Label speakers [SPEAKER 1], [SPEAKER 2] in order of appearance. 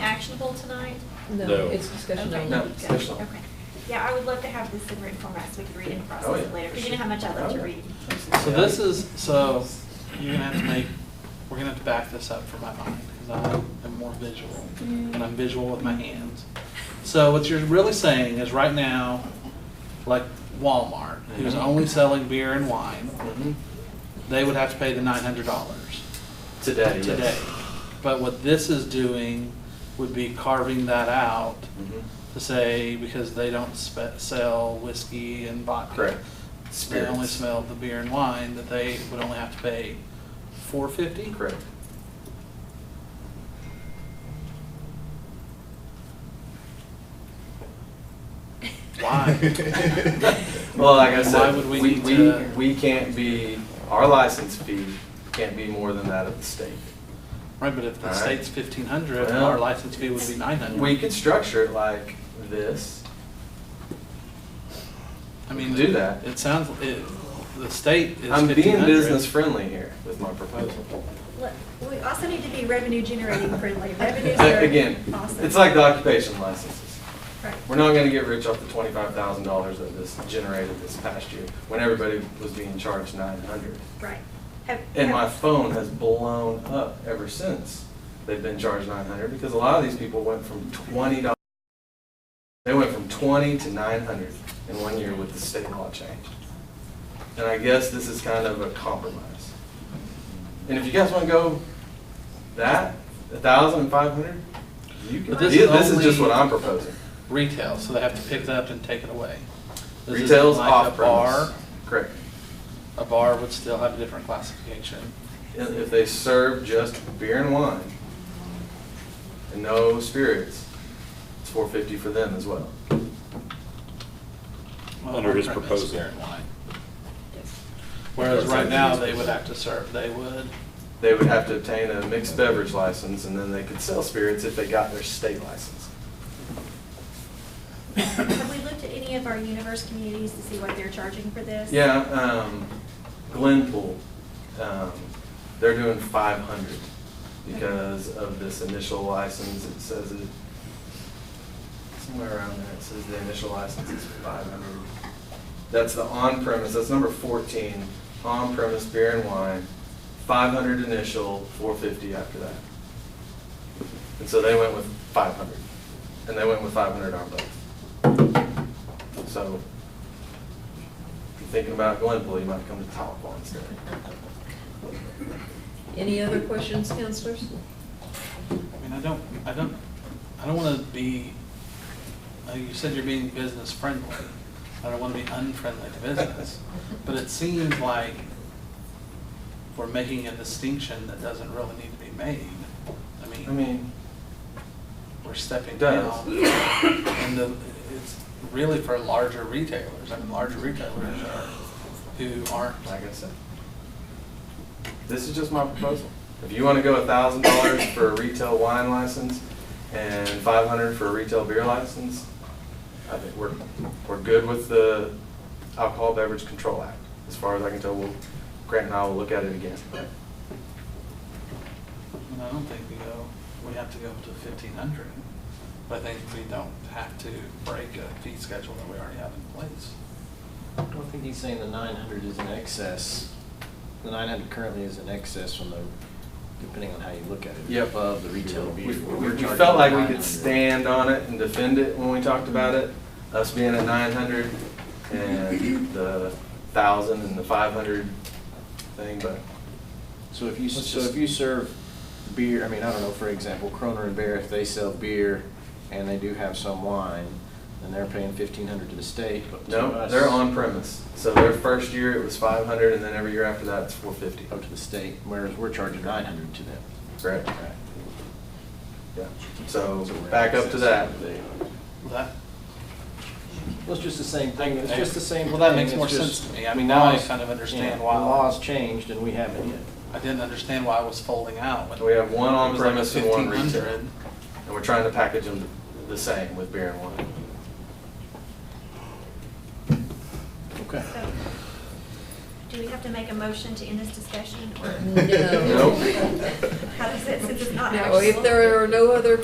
[SPEAKER 1] people tonight?
[SPEAKER 2] No.
[SPEAKER 3] No, it's discussion
[SPEAKER 1] Okay.
[SPEAKER 3] only.
[SPEAKER 4] No,
[SPEAKER 1] Good.
[SPEAKER 4] special.
[SPEAKER 1] Okay. Yeah, I would love to have this in written format so we can read and
[SPEAKER 4] Oh,
[SPEAKER 1] process
[SPEAKER 4] yeah. Oh,
[SPEAKER 1] it later, because you know how much I love to read.
[SPEAKER 5] So this is, so you're gonna have to make, we're gonna have to back this up for my mind, because I am more visual, and I'm visual with my hands. So what you're really saying is right now, like Walmart, who's only selling beer and wine,
[SPEAKER 4] Mhm.
[SPEAKER 5] they would have to pay the nine hundred dollars
[SPEAKER 4] Today, yes.
[SPEAKER 5] today. But what this is doing would be carving that out
[SPEAKER 4] Mhm.
[SPEAKER 5] to say, because they don't spe- sell whiskey and vodka.
[SPEAKER 4] Correct.
[SPEAKER 5] They only
[SPEAKER 4] Spirits.
[SPEAKER 5] smell the beer and wine, that they would only have to pay four fifty?
[SPEAKER 4] Correct.
[SPEAKER 5] Why?
[SPEAKER 4] Well, like I
[SPEAKER 5] Why
[SPEAKER 4] said,
[SPEAKER 5] would we
[SPEAKER 4] we,
[SPEAKER 5] need
[SPEAKER 4] we,
[SPEAKER 5] to-
[SPEAKER 4] we can't be, our license fee can't be more than that of the state.
[SPEAKER 5] Right, but if the
[SPEAKER 4] Alright.
[SPEAKER 5] state's fifteen hundred,
[SPEAKER 4] Well-
[SPEAKER 5] our license fee would be nine hundred.
[SPEAKER 4] We could structure it like this.
[SPEAKER 5] I mean,
[SPEAKER 4] do that.
[SPEAKER 5] It sounds, it, the state is fifteen
[SPEAKER 4] I'm
[SPEAKER 5] hundred.
[SPEAKER 4] being business friendly here with my proposal.
[SPEAKER 1] Look, We also need to be revenue generating friendly. Revenues are
[SPEAKER 4] But Again,
[SPEAKER 1] awesome.
[SPEAKER 4] it's like the occupation licenses.
[SPEAKER 1] Right.
[SPEAKER 4] We're not gonna get rich off the twenty-five thousand dollars that this generated this past year, when everybody was being charged nine hundred.
[SPEAKER 1] Right. Have-
[SPEAKER 4] And my
[SPEAKER 1] have-
[SPEAKER 4] phone has blown up ever since they've been charged nine hundred, because a lot of these people went from twenty dollars, they went from twenty to nine hundred in one year with the state law change. And I guess this is kind of a compromise. And if you guys wanna go that, a thousand and five hundred, you can,
[SPEAKER 5] But
[SPEAKER 4] this
[SPEAKER 5] this is
[SPEAKER 4] this is just
[SPEAKER 5] only-
[SPEAKER 4] what I'm proposing.
[SPEAKER 5] Retail, so they have to pick it up and take it away. This isn't
[SPEAKER 4] Retail's
[SPEAKER 5] like a
[SPEAKER 4] off
[SPEAKER 5] bar.
[SPEAKER 4] premise. Correct.
[SPEAKER 5] A bar would still have a different classification.
[SPEAKER 4] If if they serve just beer and wine and no spirits, it's four fifty for them as well.
[SPEAKER 5] Well,
[SPEAKER 2] Under his
[SPEAKER 5] on-premise
[SPEAKER 2] proposal.
[SPEAKER 5] beer and wine.
[SPEAKER 1] Yes.
[SPEAKER 5] Whereas
[SPEAKER 4] That's
[SPEAKER 5] right
[SPEAKER 4] it.
[SPEAKER 5] now, they would have to serve, they would,
[SPEAKER 4] They would have to obtain a mixed beverage license and then they could sell spirits if they got their state license.
[SPEAKER 1] Have we looked at any of our universe communities to see what they're charging for this?
[SPEAKER 4] Yeah, um, Glenpool, um, they're doing five hundred because of this initial license. It says it, somewhere around there, it says the initial license is five hundred. That's the on-premise, that's number fourteen, on-premise beer and wine, five hundred initial, four fifty after that. And so they went with five hundred, and they went with five hundred on both. So if you're thinking about Glenpool, you might come to Tahlequah instead.
[SPEAKER 3] Any other questions, counselors?
[SPEAKER 5] I mean, I don't, I don't, I don't wanna be, uh, you said you're being business friendly. I don't wanna be unfriendly to business, but it seems like we're making a distinction that doesn't really need to be made. I
[SPEAKER 4] I
[SPEAKER 5] mean,
[SPEAKER 4] mean,
[SPEAKER 5] we're stepping
[SPEAKER 4] it does.
[SPEAKER 5] down. And the, it's really for larger retailers, I mean, larger retailers are, who aren't.
[SPEAKER 4] like I said, this is just my proposal. If you want to go a thousand dollars for a retail wine license and five hundred for a retail beer license, I think we're, we're good with the Alcohol Beverage Control Act. As far as I can tell, we'll, Grant and I will look at it again.
[SPEAKER 5] And I don't think we go, we have to go up to fifteen hundred. But I think we don't have to break a fee schedule that we already have in place.
[SPEAKER 6] I don't think he's saying the nine hundred is in excess. The nine hundred currently is in excess from the, depending on how you look at it.
[SPEAKER 4] Yep.
[SPEAKER 6] Above the retail
[SPEAKER 4] We,
[SPEAKER 6] beer.
[SPEAKER 4] we
[SPEAKER 6] We're
[SPEAKER 4] we
[SPEAKER 6] charging
[SPEAKER 4] felt like we
[SPEAKER 6] 900.
[SPEAKER 4] could stand on it and defend it when we talked about it, us being at nine hundred and the thousand and the five hundred thing, but
[SPEAKER 6] So if you,
[SPEAKER 4] Let's
[SPEAKER 6] so
[SPEAKER 4] just-
[SPEAKER 6] if you serve beer, I mean, I don't know, for example, Croner and Bear, if they sell beer and they do have some wine, then they're paying fifteen hundred to the state, but to
[SPEAKER 4] no,
[SPEAKER 6] us-
[SPEAKER 4] they're on premise. So their first year it was five hundred and then every year after that it's four fifty.
[SPEAKER 6] Up to the state, whereas we're charging nine hundred to them.
[SPEAKER 4] Correct,
[SPEAKER 6] Right.
[SPEAKER 4] yeah. So
[SPEAKER 6] So we're in
[SPEAKER 4] back up to
[SPEAKER 6] excess.
[SPEAKER 4] that.
[SPEAKER 5] That,
[SPEAKER 6] Well, it's just the same thing, it's just the same.
[SPEAKER 5] Well, that
[SPEAKER 6] thing,
[SPEAKER 5] makes
[SPEAKER 6] it's
[SPEAKER 5] more
[SPEAKER 6] just-
[SPEAKER 5] sense to me. I mean, now I
[SPEAKER 6] laws-
[SPEAKER 5] kind of understand
[SPEAKER 6] yeah, the
[SPEAKER 5] why.
[SPEAKER 6] Laws changed and we haven't yet.
[SPEAKER 5] I didn't understand why I was folding out.
[SPEAKER 6] uh,
[SPEAKER 5] when
[SPEAKER 4] We have one on
[SPEAKER 5] it was like
[SPEAKER 4] premise and one retail.
[SPEAKER 5] 1,500.
[SPEAKER 4] And we're trying to package them the same with beer and wine.
[SPEAKER 6] Okay.
[SPEAKER 1] So, do we have to make a motion to end this discussion? or-
[SPEAKER 3] No.
[SPEAKER 4] Nope.
[SPEAKER 1] How does it, since it's not
[SPEAKER 3] No,
[SPEAKER 1] actionable?
[SPEAKER 3] if there are no other